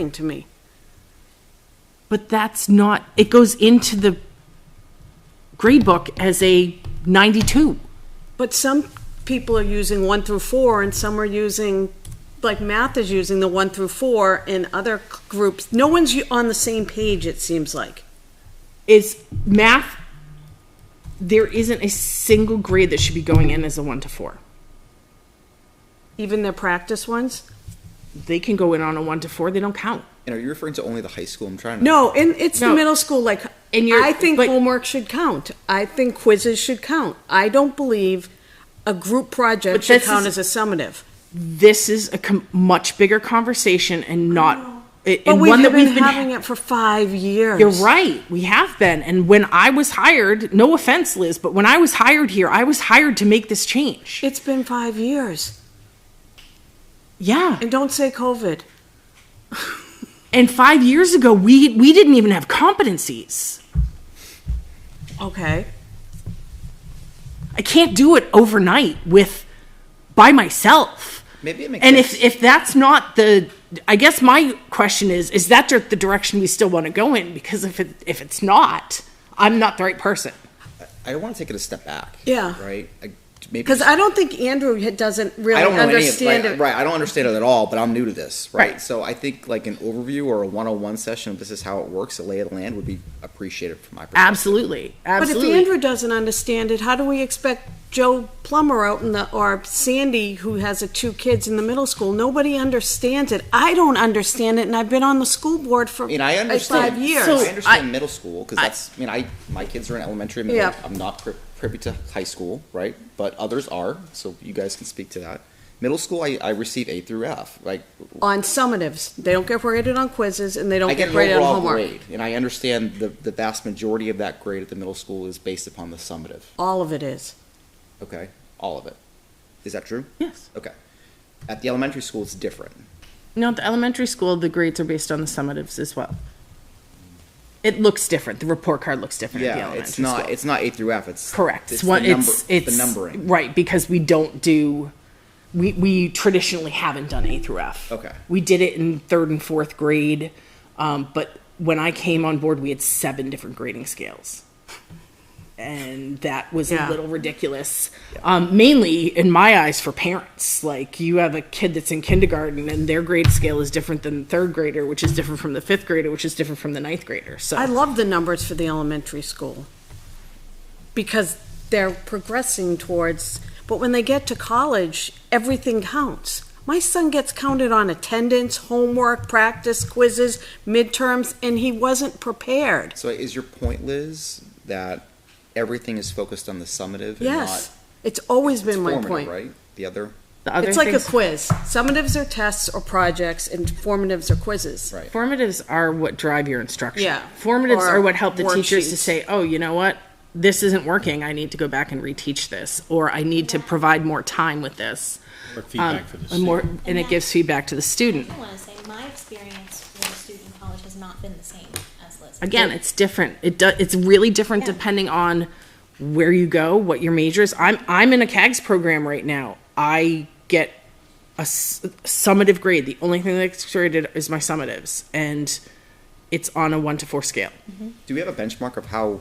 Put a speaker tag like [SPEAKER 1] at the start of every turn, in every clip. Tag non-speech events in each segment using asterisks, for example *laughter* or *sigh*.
[SPEAKER 1] thing to me. But that's not, it goes into the grade book as a 92.
[SPEAKER 2] But some people are using one through four, and some are using, like math is using the one through four, and other c- groups, no one's u- on the same page, it seems like.
[SPEAKER 1] Is math, there isn't a single grade that should be going in as a 1 to 4.
[SPEAKER 2] Even their practice ones?
[SPEAKER 1] They can go in on a 1 to 4, they don't count.
[SPEAKER 3] And are you referring to only the high school? I'm trying to.
[SPEAKER 2] No, and it's the
[SPEAKER 1] No.
[SPEAKER 2] middle school, like,
[SPEAKER 1] And you're-
[SPEAKER 2] I think
[SPEAKER 1] but-
[SPEAKER 2] homework should count. I think quizzes should count. I don't believe a group project
[SPEAKER 1] But
[SPEAKER 2] should
[SPEAKER 1] this
[SPEAKER 2] count
[SPEAKER 1] is-
[SPEAKER 2] as a summative.
[SPEAKER 1] This is a com- much bigger conversation and not, it-
[SPEAKER 2] But
[SPEAKER 1] and
[SPEAKER 2] we've
[SPEAKER 1] one that
[SPEAKER 2] been
[SPEAKER 1] we've been.
[SPEAKER 2] having it for five years.
[SPEAKER 1] You're right. We have been. And when I was hired, no offense, Liz, but when I was hired here, I was hired to make this change.
[SPEAKER 2] It's been five years.
[SPEAKER 1] Yeah.
[SPEAKER 2] And don't say COVID.
[SPEAKER 1] And five years ago, we we didn't even have competencies.
[SPEAKER 2] Okay.
[SPEAKER 1] I can't do it overnight with by myself.
[SPEAKER 3] Maybe it makes
[SPEAKER 1] And
[SPEAKER 3] sense.
[SPEAKER 1] if if that's not the, I guess my question is, is that dir- the direction we still want to go in? Because if it if it's not, I'm not the right person.
[SPEAKER 3] I want to take it a step back.
[SPEAKER 2] Yeah.
[SPEAKER 3] Right. I, maybe
[SPEAKER 2] Because
[SPEAKER 3] just-
[SPEAKER 2] I don't think Andrew had- doesn't really
[SPEAKER 3] I don't know
[SPEAKER 2] understand
[SPEAKER 3] any of,
[SPEAKER 2] it.
[SPEAKER 3] like, right. I don't understand it at all, but I'm new to this, right?
[SPEAKER 1] Right.
[SPEAKER 3] So I think like an overview or a one-on-one session of this is how it works, a lay of the land would be appreciated from my perspective.
[SPEAKER 1] Absolutely,
[SPEAKER 2] But if
[SPEAKER 1] absolutely.
[SPEAKER 2] Andrew doesn't understand it, how do we expect Joe Plummer out in the, or Sandy, who has uh, two kids in the middle school? Nobody understands it. I don't understand it, and I've been on the school board for
[SPEAKER 3] I mean, I
[SPEAKER 2] like,
[SPEAKER 3] understand.
[SPEAKER 2] five years.
[SPEAKER 3] I
[SPEAKER 1] So-
[SPEAKER 3] understand
[SPEAKER 1] I-
[SPEAKER 3] middle school because
[SPEAKER 1] I-
[SPEAKER 3] that's. I mean, I my kids are in elementary. Middle,
[SPEAKER 2] Yeah.
[SPEAKER 3] I'm not pri- privy to high school, right? But others are, so you guys can speak to that. Middle school, I, I receive A through F. Like
[SPEAKER 2] on summatives, they don't get graded on quizzes, and they don't
[SPEAKER 3] I
[SPEAKER 2] get
[SPEAKER 3] get an
[SPEAKER 2] graded on
[SPEAKER 3] overall
[SPEAKER 2] homework.
[SPEAKER 3] grade, and I understand the, the vast majority of that grade at the middle school is based upon the summative.
[SPEAKER 2] All of it is.
[SPEAKER 3] Okay, all of it. Is that true?
[SPEAKER 1] Yes.
[SPEAKER 3] Okay. At the elementary school, it's different.
[SPEAKER 1] No, at the elementary school, the grades are based on the summatives as well. It looks different. The report card looks different at the
[SPEAKER 3] Yeah,
[SPEAKER 1] elementary
[SPEAKER 3] it's not.
[SPEAKER 1] school.
[SPEAKER 3] It's not A through F. It's
[SPEAKER 1] Correct.
[SPEAKER 3] It's,
[SPEAKER 1] It's one.
[SPEAKER 3] the, number,
[SPEAKER 1] it's it's
[SPEAKER 3] the numbering.
[SPEAKER 1] right because we don't do. We we traditionally haven't done A through F.
[SPEAKER 3] Okay.
[SPEAKER 1] We did it in third and fourth grade, um, but when I came on board, we had seven different grading scales, and that was
[SPEAKER 2] Yeah.
[SPEAKER 1] a little ridiculous. Um, mainly in my eyes for parents. Like you have a kid that's in kindergarten and their grade scale is different than the third grader, which is different from the fifth grader, which is different from the ninth grader. So
[SPEAKER 2] I love the numbers for the elementary school because they're progressing towards, but when they get to college, everything counts. My son gets counted on attendance, homework, practice, quizzes, midterms, and he wasn't prepared.
[SPEAKER 3] So is your point, Liz, that everything is focused on the summative and
[SPEAKER 2] Yes, it's always
[SPEAKER 3] not
[SPEAKER 2] been my
[SPEAKER 3] formative,
[SPEAKER 2] point.
[SPEAKER 3] right? The other
[SPEAKER 1] the other
[SPEAKER 2] It's like a
[SPEAKER 1] things-
[SPEAKER 2] quiz. Summatives are tests or projects, and formatives are quizzes.
[SPEAKER 3] Right.
[SPEAKER 1] Formatives are what drive your instruction.
[SPEAKER 2] Yeah.
[SPEAKER 1] Formatives
[SPEAKER 2] Or
[SPEAKER 1] are what help the teachers to
[SPEAKER 2] worksheets.
[SPEAKER 1] say, oh, you know what? This isn't working. I need to go back and reteach this, or I need to provide more time with this.
[SPEAKER 4] Or
[SPEAKER 1] Um,
[SPEAKER 4] feedback for the
[SPEAKER 1] and more,
[SPEAKER 4] student.
[SPEAKER 1] and it gives feedback to the student.
[SPEAKER 5] I want to say my experience with a student in college has not been the same as Liz.
[SPEAKER 1] Again, it's different. It do, it's really different
[SPEAKER 5] Yeah.
[SPEAKER 1] depending on where you go, what your major is. I'm I'm in a CAGS program right now. I get a s- summative grade. The only thing that's graded is my summatives, and it's on a one to four scale.
[SPEAKER 3] Do we have a benchmark of how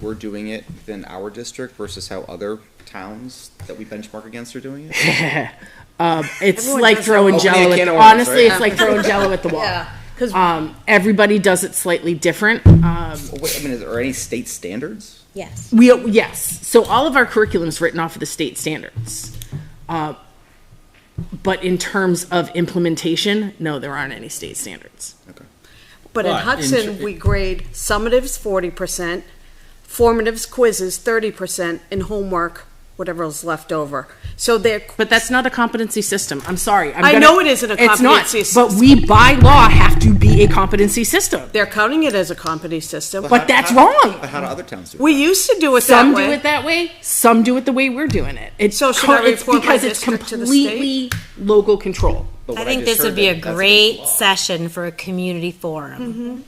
[SPEAKER 3] we're doing it within our district versus how other towns that we benchmark against are doing it?
[SPEAKER 1] It's
[SPEAKER 2] Everyone
[SPEAKER 1] like
[SPEAKER 2] does
[SPEAKER 1] throwing
[SPEAKER 3] their own-
[SPEAKER 1] jello.
[SPEAKER 3] Opening a
[SPEAKER 1] At,
[SPEAKER 3] can of worms,
[SPEAKER 1] honestly,
[SPEAKER 3] right?
[SPEAKER 1] it's like throwing jello at the *laughs* wall.
[SPEAKER 2] Yeah, because
[SPEAKER 1] Um, everybody does it slightly different. Um,
[SPEAKER 3] Well, wait, I mean, is there any state standards?
[SPEAKER 5] Yes.
[SPEAKER 1] we yes, so all of our curriculum is written off of the state standards. Uh, but in terms of implementation, no, there aren't any state standards.
[SPEAKER 3] Okay.
[SPEAKER 2] But in
[SPEAKER 4] But in
[SPEAKER 2] Hudson,
[SPEAKER 4] tr-
[SPEAKER 2] we grade summatives forty percent, formatives quizzes thirty percent, and homework, whatever is left over. So they're,
[SPEAKER 1] But that's not a competency system. I'm sorry. I'm
[SPEAKER 2] I know it isn't a
[SPEAKER 1] it's not,
[SPEAKER 2] competency
[SPEAKER 1] But
[SPEAKER 2] system.
[SPEAKER 1] we by law have to be a competency system.
[SPEAKER 2] they're counting it as a competency system.
[SPEAKER 1] But that's wrong.
[SPEAKER 3] But how do other towns do it?
[SPEAKER 2] We used to do it
[SPEAKER 1] Some
[SPEAKER 2] that
[SPEAKER 1] do it
[SPEAKER 2] way.
[SPEAKER 1] that way. Some do it the way we're doing it. It's
[SPEAKER 2] So should I
[SPEAKER 1] it's
[SPEAKER 2] report my
[SPEAKER 1] because it's
[SPEAKER 2] district to the
[SPEAKER 1] completely local control.
[SPEAKER 3] But what
[SPEAKER 6] I think
[SPEAKER 3] just
[SPEAKER 6] this would
[SPEAKER 3] heard
[SPEAKER 6] be a
[SPEAKER 3] that that's
[SPEAKER 6] great
[SPEAKER 3] against the law.
[SPEAKER 6] session for a community forum.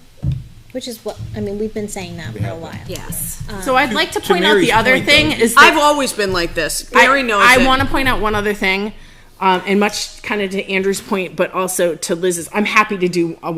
[SPEAKER 5] Which is what, I mean, we've been saying that for a
[SPEAKER 3] have
[SPEAKER 5] while.
[SPEAKER 6] Yes.
[SPEAKER 1] So I'd like to
[SPEAKER 4] to
[SPEAKER 1] point out
[SPEAKER 4] Mary's
[SPEAKER 1] the other
[SPEAKER 4] point,
[SPEAKER 1] thing
[SPEAKER 4] though,
[SPEAKER 1] is that
[SPEAKER 2] I've always been like this. Mary knows
[SPEAKER 1] I
[SPEAKER 2] it.
[SPEAKER 1] want to point out one other thing. Um, and much kind of to Andrew's point, but also to Liz's, I'm happy to do a